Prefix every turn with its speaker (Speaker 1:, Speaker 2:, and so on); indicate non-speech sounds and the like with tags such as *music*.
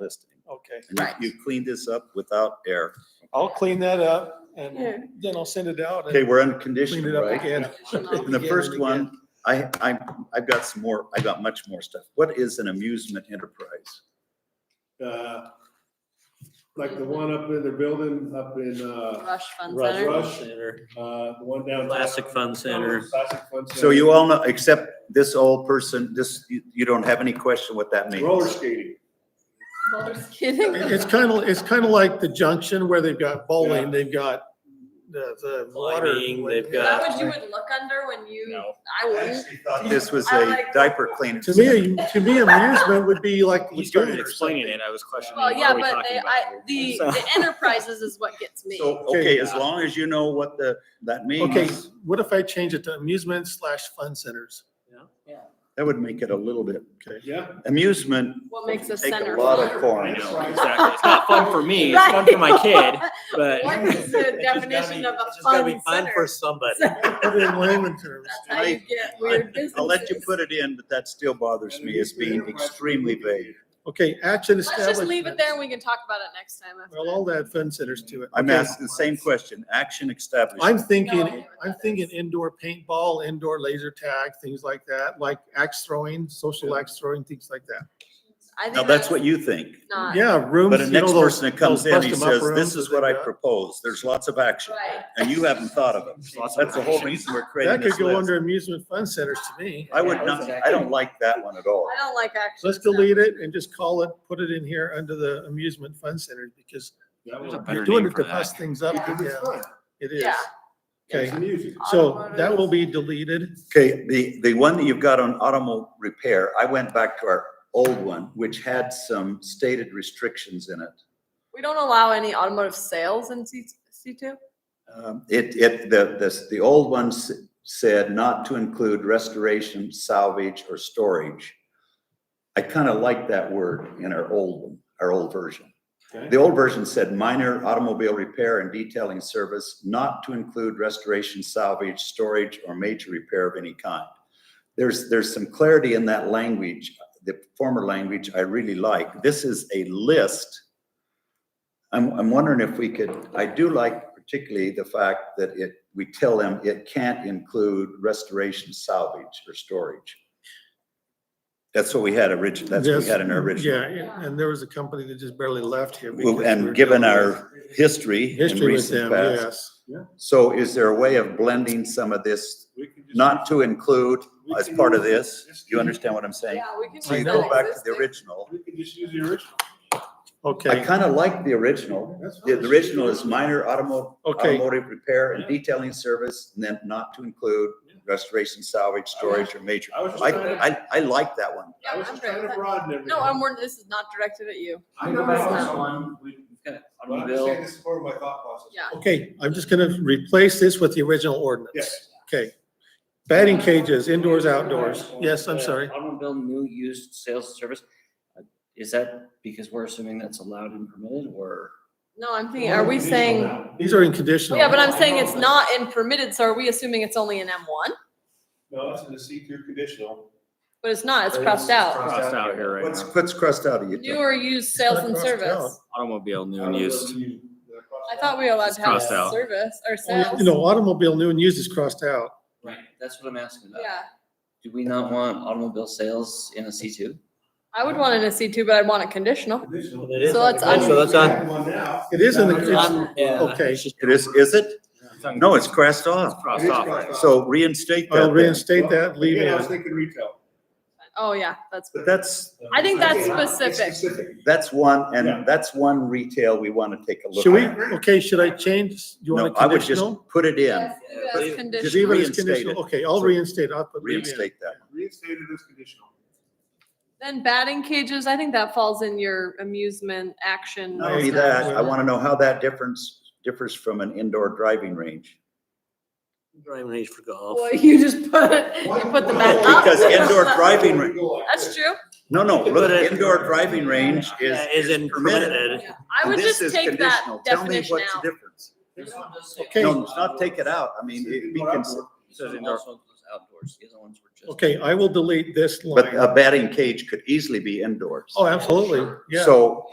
Speaker 1: listing.
Speaker 2: Okay,
Speaker 1: And you-
Speaker 3: Right.
Speaker 1: You cleaned this up without error.
Speaker 2: I'll clean that up
Speaker 4: Yeah.
Speaker 2: and then I'll send it out. and
Speaker 1: Okay, we're on
Speaker 2: Clean
Speaker 1: condition,
Speaker 2: it up
Speaker 1: right? *laughs*
Speaker 2: again.
Speaker 1: And the
Speaker 2: Again
Speaker 1: first
Speaker 2: and
Speaker 1: one, I, I, I've got some more, I've got much more stuff. What is an amusement enterprise?
Speaker 5: uh, like the one up in the building up in, uh,
Speaker 4: Rush Fund
Speaker 5: Rush,
Speaker 4: Center.
Speaker 5: Rush,
Speaker 6: Center,
Speaker 5: uh, the one down.
Speaker 6: Classic Fun Center.
Speaker 5: Classic Fun Center.
Speaker 1: So you all know, except this old person, this, you, you don't have any question what that
Speaker 5: Roller
Speaker 1: means.
Speaker 5: skating.
Speaker 4: Just kidding.
Speaker 2: It's kind of, it's kind of like the junction where they've got bowling, they've got the, the water.
Speaker 6: Climbing, they've
Speaker 4: Is that what
Speaker 6: got-
Speaker 4: you would look under when you,
Speaker 6: No.
Speaker 4: I wouldn't.
Speaker 1: Actually thought This was a diaper cleaning.
Speaker 2: To me, to me amusement would be like.
Speaker 6: He started
Speaker 2: lagoon or
Speaker 6: explaining it, I was questioning.
Speaker 4: Well,
Speaker 6: what
Speaker 4: yeah,
Speaker 6: are we
Speaker 4: but
Speaker 6: talking
Speaker 4: they,
Speaker 6: about
Speaker 4: I,
Speaker 6: here?
Speaker 4: the,
Speaker 6: So-
Speaker 4: the enterprises is what gets me.
Speaker 1: So, okay, as long as you know what the, that
Speaker 2: something.
Speaker 1: means.
Speaker 2: Okay, what if I change it to amusement slash fun centers?
Speaker 1: That would make it a little bit, okay.
Speaker 5: Yeah.
Speaker 1: Amusement
Speaker 4: What makes a
Speaker 1: take
Speaker 4: center?
Speaker 1: a lot
Speaker 4: fun?
Speaker 1: of
Speaker 6: I
Speaker 1: corn.
Speaker 6: know, exactly. It's not fun for me, it's fun for my *laughs*
Speaker 4: Right.
Speaker 6: kid, but.
Speaker 4: What is
Speaker 6: It's
Speaker 4: the
Speaker 6: just gotta
Speaker 4: definition
Speaker 6: be-
Speaker 4: of
Speaker 6: it's
Speaker 4: a
Speaker 6: just gotta be
Speaker 4: fun
Speaker 6: Fun
Speaker 4: center?
Speaker 6: for somebody.
Speaker 2: Put it in layman terms.
Speaker 4: That's how you get weird businesses.
Speaker 1: I'll let you put it in, but that still bothers me as being extremely vague.
Speaker 2: Okay, action
Speaker 4: Let's
Speaker 2: establishment.
Speaker 4: just leave it there and we can talk about it next time. after.
Speaker 2: Well, all that fun centers to it.
Speaker 1: I'm
Speaker 2: Okay.
Speaker 1: asking the same question, action
Speaker 2: I'm
Speaker 1: establishment.
Speaker 2: thinking, I'm thinking indoor paintball, indoor laser tag, things like that, like axe throwing, social axe throwing, things like that.
Speaker 4: I think
Speaker 1: Now, that's what you think,
Speaker 4: Not, right.
Speaker 2: Yeah, rooms.
Speaker 1: but the
Speaker 2: you
Speaker 1: next
Speaker 2: know, those-
Speaker 1: person that comes
Speaker 2: those
Speaker 1: in, he
Speaker 2: bust 'em up
Speaker 1: says, this
Speaker 2: rooms
Speaker 1: is
Speaker 2: that
Speaker 1: what
Speaker 2: they
Speaker 1: I
Speaker 2: got."
Speaker 1: propose, there's lots of action, and you haven't thought of it.
Speaker 6: Lots of
Speaker 1: That's the whole
Speaker 6: action.
Speaker 1: reason we're creating
Speaker 2: That
Speaker 1: this
Speaker 2: could go
Speaker 1: list.
Speaker 2: under amusement fun centers to me.
Speaker 1: I would not, I don't like that one at all.
Speaker 4: I don't like action.
Speaker 2: Let's delete it and just call it, put it in here under the amusement fun centers because
Speaker 5: That
Speaker 6: There's
Speaker 5: one.
Speaker 6: a
Speaker 2: you're
Speaker 6: Better
Speaker 2: doing
Speaker 6: name
Speaker 2: it to
Speaker 6: for
Speaker 2: mess
Speaker 6: that.
Speaker 2: things up.
Speaker 5: Because it's
Speaker 2: Yeah,
Speaker 5: fun.
Speaker 2: It is.
Speaker 4: Yeah.
Speaker 2: Okay,
Speaker 5: It's music.
Speaker 2: so that will be deleted.
Speaker 1: Okay, the, the one that you've got on automo repair, I went back to our old one, which had some stated restrictions in it.
Speaker 4: We don't allow any automotive sales in C, C two?
Speaker 1: Um, It, it, the, the, the old one s- said not to include restoration, salvage, or storage. I kind of like that word in our old, one, our old version.
Speaker 5: Okay.
Speaker 1: The old version said minor automobile repair and detailing service, not to include restoration, salvage, storage, or major repair of any kind. There's, there's some clarity in that language, the former language I really like. This is a list. I'm, I'm wondering if we could, I do like particularly the fact that it, we tell them it can't include restoration, salvage, or storage. That's what we had originally, that's what we
Speaker 2: Yes.
Speaker 1: had in our original.
Speaker 2: Yeah, and and there was a company that just barely left here. because we were
Speaker 1: And given
Speaker 2: done with
Speaker 1: our history in
Speaker 2: History with
Speaker 1: recent
Speaker 2: them,
Speaker 1: past.
Speaker 2: yes.
Speaker 1: So is there a way of blending some of this,
Speaker 5: We can just-
Speaker 1: not to include
Speaker 5: we
Speaker 1: as
Speaker 5: can
Speaker 1: part of
Speaker 5: use-
Speaker 1: this? You understand what I'm saying?
Speaker 4: Yeah, we can.
Speaker 1: So you
Speaker 4: make
Speaker 1: go
Speaker 4: that
Speaker 1: back to the
Speaker 4: existing.
Speaker 1: original.
Speaker 5: We can just use the original.
Speaker 1: I
Speaker 2: Okay,
Speaker 1: kind of like the original.
Speaker 5: That's fine.
Speaker 1: The the original is minor automo-
Speaker 2: Okay.
Speaker 1: automotive repair and
Speaker 5: Yeah.
Speaker 1: detailing service, and then not to include
Speaker 5: Yeah.
Speaker 1: restoration, salvage, storage, or major.
Speaker 5: I was just
Speaker 1: I,
Speaker 5: trying to-
Speaker 1: I, I like that one.
Speaker 5: I
Speaker 4: Yeah,
Speaker 5: was
Speaker 4: I'm
Speaker 5: just
Speaker 4: great with
Speaker 5: trying to
Speaker 4: that.
Speaker 5: broaden everything.
Speaker 4: No, I'm, wor- this is not directed at you.
Speaker 5: I
Speaker 6: Go
Speaker 5: know
Speaker 6: back
Speaker 5: this one.
Speaker 6: to one. We've got
Speaker 5: But I'm just saying this is part of my thought process.
Speaker 4: Yeah.
Speaker 2: okay, I'm just gonna replace this with the original ordinance.
Speaker 5: Yes.
Speaker 2: Okay. Batting cages, indoors, outdoors. Yes, I'm
Speaker 7: Yeah,
Speaker 2: sorry.
Speaker 7: Automobile new used sales service. Uh, Is that because we're assuming that's allowed and permitted or?
Speaker 4: No, I'm thinking, are we saying,
Speaker 2: These are in conditional.
Speaker 4: yeah, but I'm saying it's not in permitted, so are we assuming it's only in M one?
Speaker 5: No, it's in the C two conditional.
Speaker 4: But it's not, it's
Speaker 7: It is
Speaker 4: crossed out.
Speaker 6: Crossed out here right
Speaker 1: What's,
Speaker 6: now.
Speaker 1: what's crossed out of you?
Speaker 4: New or used sales
Speaker 2: not
Speaker 4: and
Speaker 2: crossed
Speaker 4: service.
Speaker 6: Automobile new and used.
Speaker 4: I thought we were allowed to have
Speaker 6: Crossed out.
Speaker 4: service or
Speaker 2: Well,
Speaker 4: sales.
Speaker 2: You know, automobile new and used is crossed out.
Speaker 7: Right. That's what I'm asking about.
Speaker 4: Yeah,
Speaker 7: Do we not want automobile sales in a C two?
Speaker 4: I would want it in a C two, but I'd want it conditional.
Speaker 5: Conditional.
Speaker 6: It is
Speaker 4: So it's un-
Speaker 6: So that's on.
Speaker 5: One now.
Speaker 2: It is in the, it's-
Speaker 6: Um, yeah.
Speaker 2: okay.
Speaker 6: It's just-
Speaker 1: It is, is it?
Speaker 6: it's on-
Speaker 1: No, it's crossed off.
Speaker 6: Crossed
Speaker 5: It is
Speaker 6: off.
Speaker 5: crossed off.
Speaker 1: So reinstate that.
Speaker 2: I'll
Speaker 1: then.
Speaker 2: reinstate that, leave
Speaker 5: Again, I was
Speaker 2: in.
Speaker 5: thinking retail.
Speaker 4: Oh, yeah, that's,
Speaker 1: But that's,
Speaker 4: I think that's
Speaker 5: Again, it's
Speaker 4: specific.
Speaker 1: that's one,
Speaker 5: Yeah.
Speaker 1: and that's one retail we want to take a look.
Speaker 2: Should we,
Speaker 1: at.
Speaker 2: okay, should I change? You
Speaker 1: No,
Speaker 2: want a
Speaker 1: I would just
Speaker 2: conditional?
Speaker 1: put it in,
Speaker 4: that's
Speaker 6: Yeah, leave
Speaker 4: that's
Speaker 6: it.
Speaker 2: Just leave
Speaker 4: conditional.
Speaker 2: it as
Speaker 1: reinstate
Speaker 2: conditional.
Speaker 1: it.
Speaker 2: Okay, I'll
Speaker 1: So-
Speaker 2: reinstate, I'll put leave in.
Speaker 1: reinstate that.
Speaker 5: Reinstated as conditional.
Speaker 4: Then batting cages, I think that falls in your amusement
Speaker 2: Oh,
Speaker 4: action.
Speaker 1: Not only that, I want to know how that difference, differs from an indoor driving range.
Speaker 6: Driving range for golf.
Speaker 4: Well, you just put, you put the
Speaker 5: *laughs*
Speaker 4: bat up.
Speaker 1: Because indoor driving range,
Speaker 4: That's true.
Speaker 1: no, no, look,
Speaker 6: But it-
Speaker 1: indoor driving range is.
Speaker 6: Yeah, is in permitted.
Speaker 4: Yeah. I would
Speaker 1: This
Speaker 4: just
Speaker 1: is
Speaker 4: take that
Speaker 1: conditional. Tell me
Speaker 4: definition
Speaker 1: what's the
Speaker 4: out.
Speaker 1: difference.
Speaker 2: Okay.
Speaker 1: No, it's not take it out. I mean, it- we can,
Speaker 6: Says indoor.
Speaker 7: Also includes
Speaker 6: outdoors. The other ones were just.
Speaker 2: Okay, I will delete this
Speaker 1: But uh,
Speaker 2: line.
Speaker 1: a batting cage could easily be indoors.
Speaker 2: Oh, absolutely, Oh, yeah.
Speaker 1: So